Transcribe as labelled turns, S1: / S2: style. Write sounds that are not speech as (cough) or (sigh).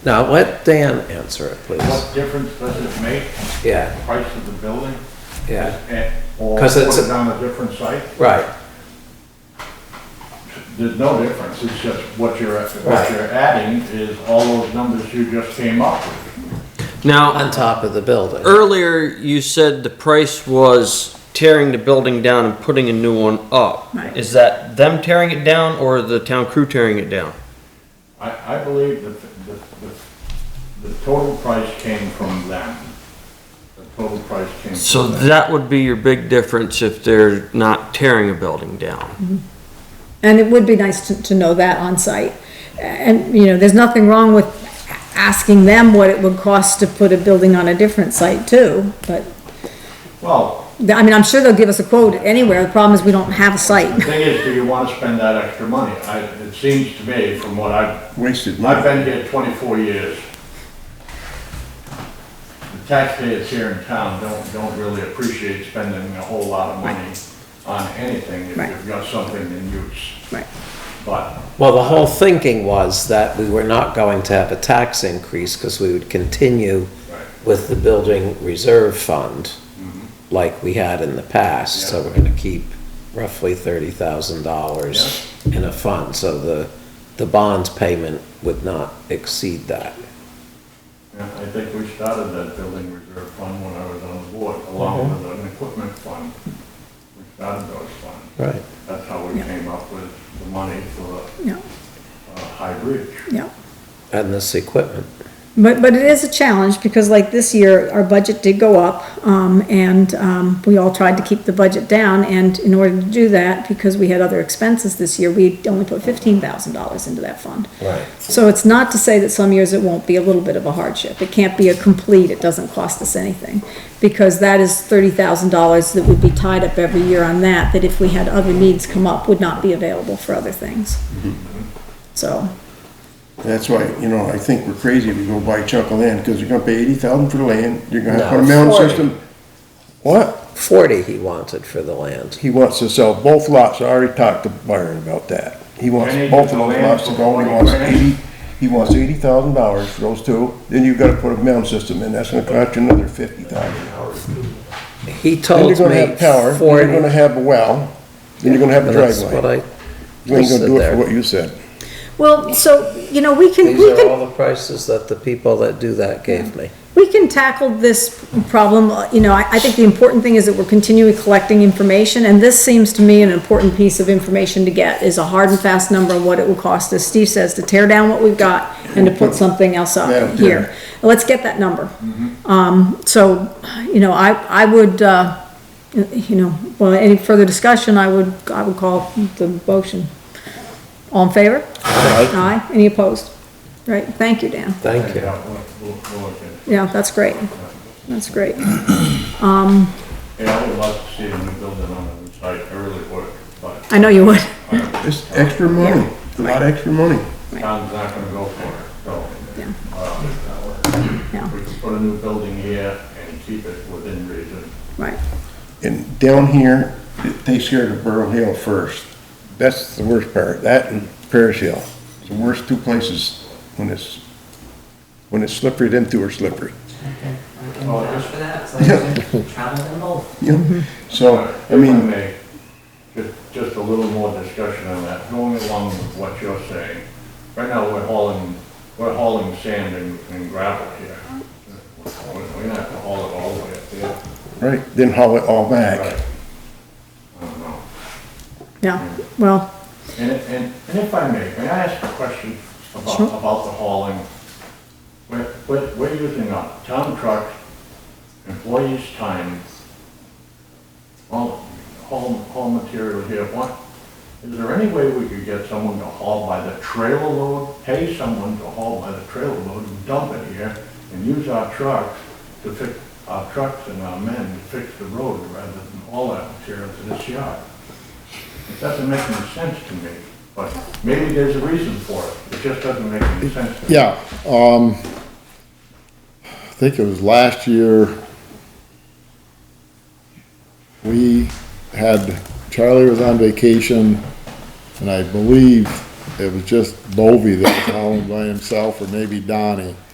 S1: Now, let Dan answer it, please.
S2: What difference does it make,
S1: Yeah,
S2: price of the building?
S1: yeah,
S2: and- Or
S1: 'Cause
S2: put
S1: it's-
S2: it on a different site?
S1: right,
S2: There's no difference, it's just what you're,
S1: Right.
S2: what you're adding is all those numbers you just came up with.
S1: on
S3: Now,
S1: top of the building.
S3: earlier you said the price was tearing the building down and putting a new one up.
S4: Right.
S3: Is that them tearing it down or the town crew tearing it down?
S2: I, I believe that the, the, the total price came from them. The total price came
S3: So
S2: from them.
S3: that would be your big difference if they're not tearing a building down.
S4: And it would be nice to, to know that on site. And, you know, there's nothing wrong with asking them what it would cost to put a building on a different site too, but,
S2: Well,
S4: I mean, I'm sure they'll give us a quote anywhere, the problem is we don't have a
S2: the
S4: site.
S2: thing is, do you wanna spend that extra money? I, it seems to me, from what I've
S5: Wasted
S2: I've
S5: money.
S2: been here twenty-four years. The taxpayers here in town don't, don't really appreciate spending a whole lot of money on anything if
S4: Right.
S2: you've got something in use.
S4: Right.
S2: But
S1: Well, the whole thinking was that we were not going to have a tax increase because we would continue
S2: Right.
S1: with the building reserve fund like we had in the past. So
S2: Yeah.
S1: we're gonna keep roughly thirty thousand dollars in a fund, so the, the bond payment would not exceed that.
S2: yeah, I think we started that building reserve fund when I was on the board, along
S4: Mm-hmm.
S2: with an equipment fund. We started those funds.
S1: Right.
S2: That's how we
S4: Yeah.
S2: came up with the money for
S4: Yeah,
S2: uh, High Bridge.
S4: yeah.
S1: And this equipment.
S4: But, but it is a challenge, because like this year, our budget did go up, um, and, um, we all tried to keep the budget down, and in order to do that, because we had other expenses this year, we only put fifteen thousand dollars into that fund.
S1: Right.
S4: So it's not to say that some years it won't be a little bit of a hardship. It can't be a complete, it doesn't cost us anything. Because that is thirty thousand dollars that would be tied up every year on that, that if we had other needs come up, would not be available for other things.
S1: Mm-hmm.
S4: So,
S5: That's why, you know, I think we're crazy if you go buy a chunk of land, because you're gonna pay eighty thousand for the land, you're gonna have to put a
S1: No,
S5: mound
S1: 40.
S5: system. What?
S1: Forty he wanted for the land.
S5: He wants to sell both lots, I already talked to Byron about that. He wants
S2: And he
S5: both
S2: gets
S5: of
S2: the
S5: those
S2: land
S5: lots to
S2: for
S5: go, and he
S2: 40
S5: wants
S2: grand.
S5: eighty, he wants eighty thousand dollars for those two, then you've gotta put a mound system in, that's gonna cost you another fifty thousand.
S1: He
S5: Then
S1: told
S5: you're
S1: me
S5: gonna have power, then
S1: forty.
S5: you're gonna have a well, then you're gonna have a
S1: That's what
S5: driveway.
S1: I
S5: You ain't
S1: listed
S5: gonna do it
S1: there.
S5: for what you said.
S4: well, so, you know, we can,
S1: These
S4: we
S1: are
S4: can,
S1: all the prices that the people that do that gave me.
S4: we can tackle this problem. Uh, You know, I, I think the important thing is that we're continually collecting information, and this seems to me an important piece of information to get, is a hard and fast number on what it will cost, as Steve says, to tear down what we've got and to put something else up
S5: Yeah.
S4: here. Let's get that number. Um, so, you know, I, I would, uh, you know, well, any further discussion, I would, I would call the motion. All in favor? Aye. Any opposed? Right, thank you, Dan.
S1: Thank you.
S2: Yeah, we'll- we'll- we'll look at it.
S4: Yeah, that's great. That's great. Um,
S2: Yeah, I would like to see a new building on the site, I really would, but
S4: I know you would.
S5: It's extra money, a lot of extra money.
S2: town's not gonna go for it, so.
S4: Yeah.
S2: um,
S4: Yeah.
S2: We can put a new building here and keep it within reason.
S4: Right.
S5: And down here, it takes care of Burrow Hill first. That's the worst part, that and Parish Hill. It's the worst two places when it's, when it's slippery, them two are slippery. (laughs)
S6: And vouch for that, it's like, travel them both.
S5: you know? So,
S2: If
S5: I mean,
S2: may, Just, just a little more discussion on that, going along with what you're saying. Right now, we're hauling, we're hauling sand and and gravel here. We're we're not gonna haul it all the way up there.
S5: right, then haul it all
S2: Right.
S5: back.
S2: I don't know.
S4: Yeah, well,
S2: And, and, and if I may, may I ask a question about,
S4: Sure.
S2: about the hauling? We're, we're, we're using a town truck, employees' time, all, haul, haul material here, what? Is there any way we could get someone to haul by the trailer load, pay someone to haul by the trailer load and dump it here and use our trucks to fix, our trucks and our men to fix the road rather than haul that material to this yard? It doesn't make any sense to me, but maybe there's a reason for it. It just doesn't make any sense to me.
S7: Yeah, um, I think it was last year, we had, Charlie was on vacation, and I believe it was just Bovee that was hauling by himself, or maybe Donnie.